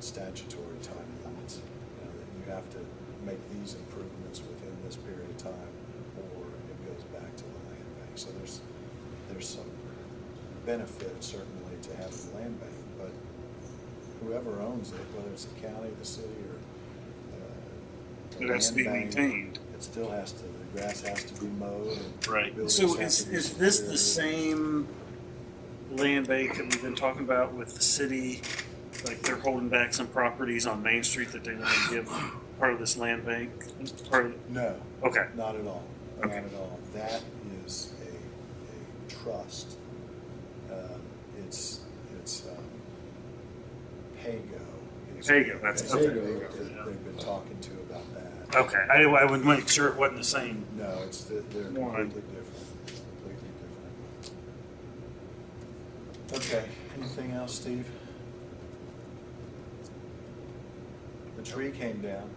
statutory time limits. You know, that you have to make these improvements within this period of time, or it goes back to the land bank. So there's, there's some benefit certainly to having the land bank, but whoever owns it, whether it's the county, the city, or uh, the It has to be land bank, maintained. It still has to, the grass has to be mowed. and Right, buildings so have is, to be is this the secured. same land bank that we've been talking about with the city? Like they're holding back some properties on Main Street that they wanna give part of this land bank, part of, No, okay, not at all, not Okay. at all. That is a, a trust. Um, It's, it's, um, Pago. is- Pago, that's- is okay. the group Pago, yeah. Oh. that They've been talking to about that. okay, I, I would make sure it wasn't the same. No, it's, the- they're One. completely different, completely different. Okay, anything else, Steve? The tree came down,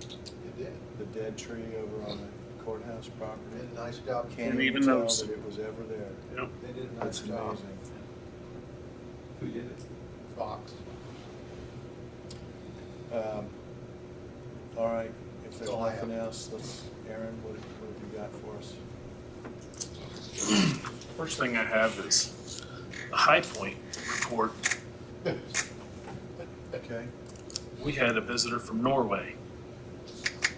It did. the dead tree over on the courthouse property. Did a nice job. Can't Didn't even even tell notice that it. it was ever there. Yep. They did a nice That's job. amazing. Who did it? Fox. Um, All right, if there's That's all I nothing have. else, let's, Aaron, what have what have you got for us? First thing I have is the High Point report. Okay, We had a visitor from Norway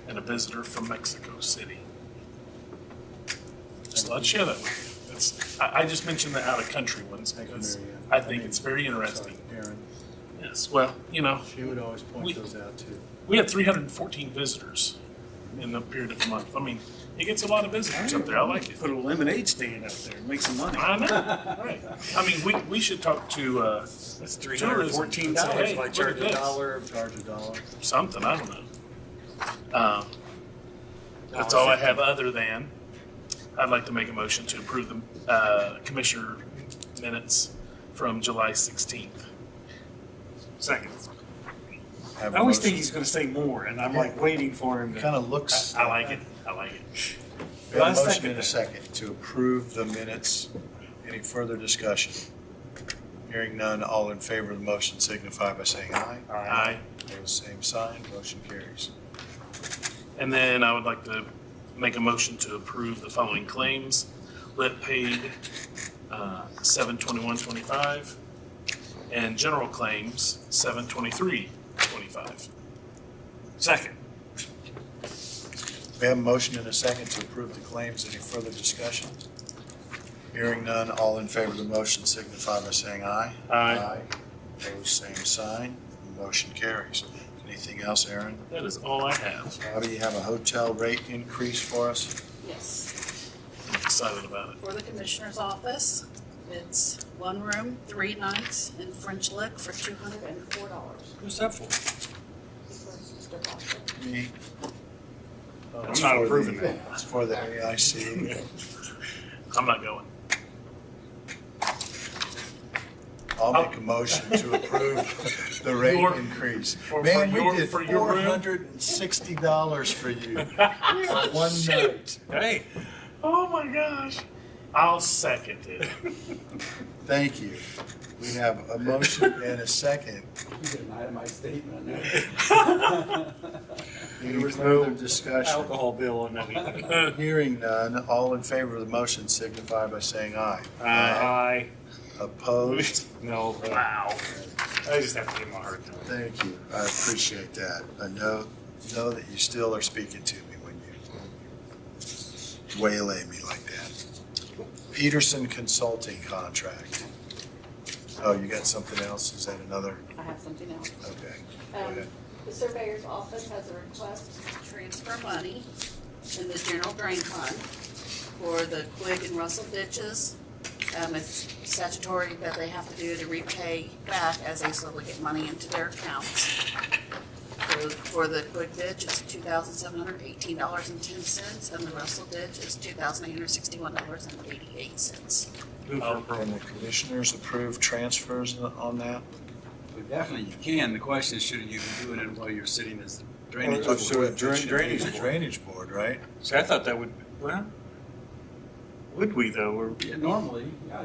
and a visitor from Mexico City. Just thought I'd share that with you. That's, I, I just mentioned the out-of-country ones thank you, because Mary Ann. I think mean, it's very interesting. sorry, Aaron, Yes, well, you know, she would always We- point those out too. we had three hundred and fourteen visitors in the period of a month. I mean, it gets a lot of visitors up there. I like it. Put a lemonade stand out there, make some money. I know, right. I mean, we, we should talk to, uh, That's three hundred and fourteen dollars, Tourism. why charge Look a at this. dollar? Charge a dollar. something, I don't know. Um, That's all I have other than, I'd like to make a motion to approve the uh, commissioner minutes from July 16th. Second. Have I a always motion. think he's gonna say more, and I'm like waiting for him to. of looks. I like it, I like it. We have Last a motion second in a then. second to approve the minutes. Any further discussion? Hearing none, all in favor of the motion signify by saying aye. Aye. Pose same sign, motion carries. And then I would like to make a motion to approve the following claims. Lit paid uh, 7/21/25 and general claims 7/23/25. Second. We have a motion in a second to approve the claims. Any further discussion? Hearing none, all in favor of the motion signify by saying aye. Aye. Pose same sign, motion carries. Anything else, Aaron? That is all I have. Bobby, you have a hotel rate increase for us? Yes, I'm excited about it. for the commissioner's office. It's one room, three nights in French Lick for two hundred and four dollars. Who's that for? Me. I'm not approving that. It's for the AIC. I'm not going. I'll make a motion to approve the rate Your- increase. for- Man, for we your- did for your four room? hundred and sixty dollars for you for one night. Hey, Oh my gosh. I'll second it. Thank you. We have a motion and a second. You didn't hide my statement. Any further discussion? alcohol bill on that. Hearing none, all in favor of the motion signify by saying aye. Aye. Opposed? No. Wow. I just have to give him a hard time. Thank you. I appreciate that. I know, know that you still are speaking to me when you waylay me like that. Peterson Consulting Contract. Oh, you got something else? Is that another? I have something else. Okay. Go Um, ahead. The surveyor's office has a request Transfer money in the general drain fund for the Quig and Russell ditches. Um, it's statutory that they have to do to repay back as they slowly get money into their accounts. For, for the Quig ditch, it's two thousand seven hundred eighteen dollars and ten cents, and the Russell ditch is two thousand eight hundred sixty-one dollars and eighty-eight cents. Um, Can the commissioners approve transfers on that? Well, Definitely you can. The question is, should you be doing it while you're sitting as the drainage? Or- or should it- Drain- should be drainage the board. Drainage board, right? See, I thought that would, well, Would we though, or Yeah, Normally, yeah,